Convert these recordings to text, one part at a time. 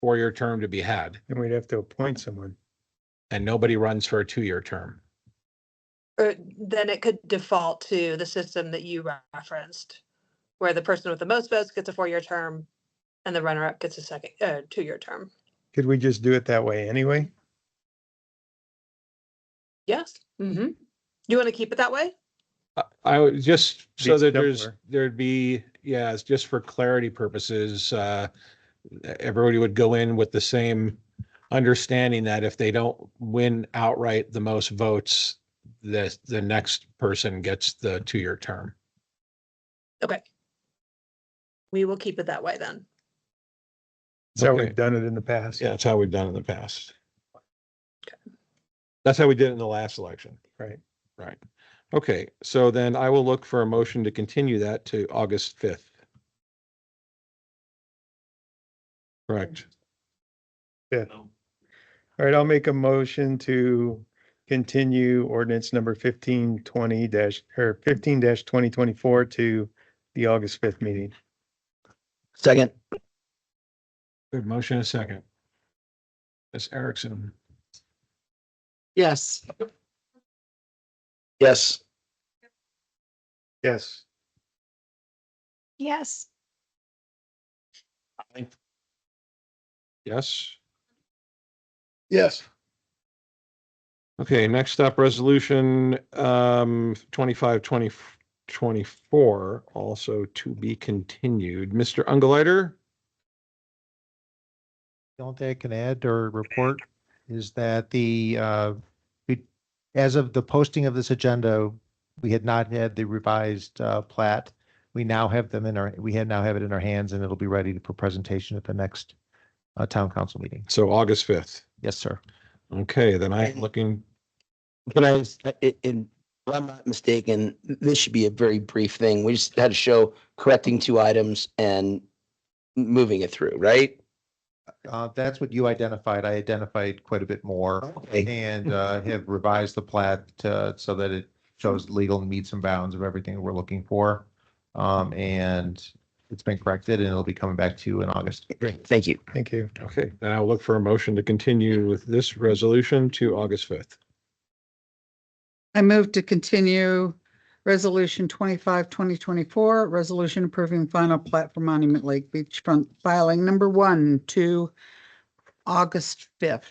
four-year term to be had, And we'd have to appoint someone. and nobody runs for a two-year term. Or er, then it could default to the system that you referenced, where the person with the most votes gets a four-year term and the runner-up gets a second, uh, two-year term. Could we just do it that way anyway? Yes. Mm-hmm. You want to keep it that way? I- I would just so Be that there's, simpler. there'd be, yeah, it's just for clarity purposes, uh, everybody would go in with the same understanding that if they don't win outright the most votes, the, the next person gets the two-year term. We will keep it that way then. That's how Okay. we've done it in the past. Yeah, that's how we've done in the past. That's how we did it in the last election. Right. Right. Okay, so then I will look for a motion to continue that to August fifth. Correct. All right, I'll make a motion to continue ordinance number fifteen twenty dash, or fifteen dash twenty twenty-four to the August fifth meeting. Second, Good motion, and a second. Ms. Erickson, Yes, yes, Yes. Yes. yes? yes, Okay, next up, resolution um twenty-five, twenty, twenty-four, also to be continued. Mr. Ungaliter? The only thing I can add or report is that the, uh, we- as of the posting of this agenda, we had not had the revised uh, plat. We now have them in our, we had now have it in our hands and it'll be ready for presentation at the next uh, town council meeting. So August fifth. Yes, sir. Okay, then I'm looking, but I, was- i- in, if I'm not mistaken, this should be a very brief thing. We just had to show correcting two items and moving it through, right? Uh, That's what you identified. I identified quite a bit more Okay, and uh, have revised the plat uh, so that it shows legal meets and bounds of everything we're looking for. Um, And it's been corrected and it'll be coming back to you in August. thank you. Thank you. okay, then I'll look for a motion to continue with this resolution to August fifth. I move to continue Resolution 25, 2024, resolution approving final plat for Monument Lake Beachfront filing number one to August 5th.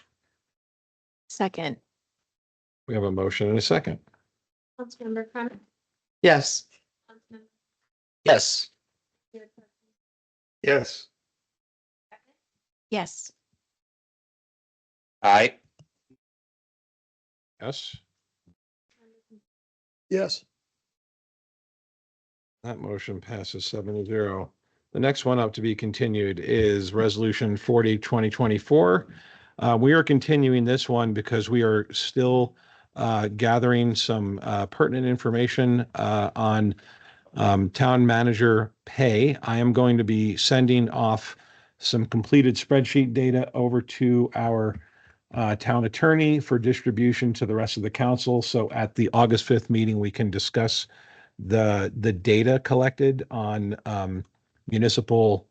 Second. We have a motion and a second. Councilmember Chronic. yes, Yes, Yes. Yes. I. Yes, Yes. that motion passes seven to zero. The next one up to be continued is resolution forty, twenty twenty-four. Uh, we are continuing this one because we are still uh, gathering some uh, pertinent information uh, on um, town manager pay. I am going to be sending off some completed spreadsheet data over to our uh, town attorney for distribution to the rest of the council. So at the August 5th meeting, we can discuss the, the data collected on um, municipal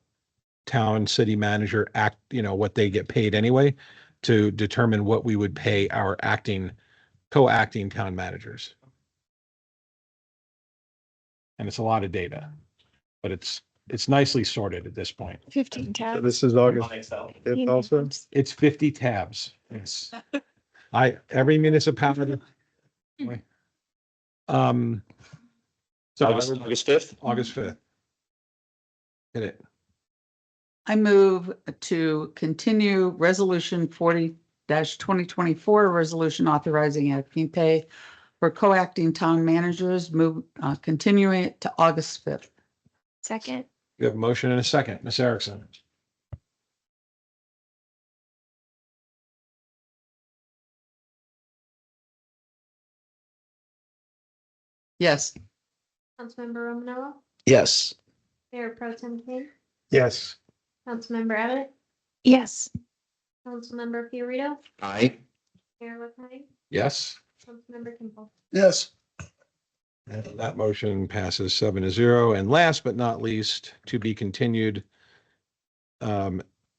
town city manager act, you know, what they get paid anyway to determine what we would pay our acting, co-acting town managers. And it's a lot of data, but it's, it's nicely sorted at this point. Fifteen So tabs. this is August fifth also? It's fifty tabs. It's, I, every municipality. Um. So August fifth? August fifth. Hit it. I move to continue Resolution 40 2024, resolution authorizing acting pay for co-acting town managers, move, uh, continuing it to August 5th. Second. We have a motion and a second. Ms. Erickson. Yes. Councilmember Romanella, Yes, Mayor Pro Tem King, Yes. Councilmember Abbott, Yes. Councilmember Fiorito, I. Mayor LaKai, Yes. Councilmember Kimball. Yes. And That motion passes seven to zero. And last but not least, to be continued um,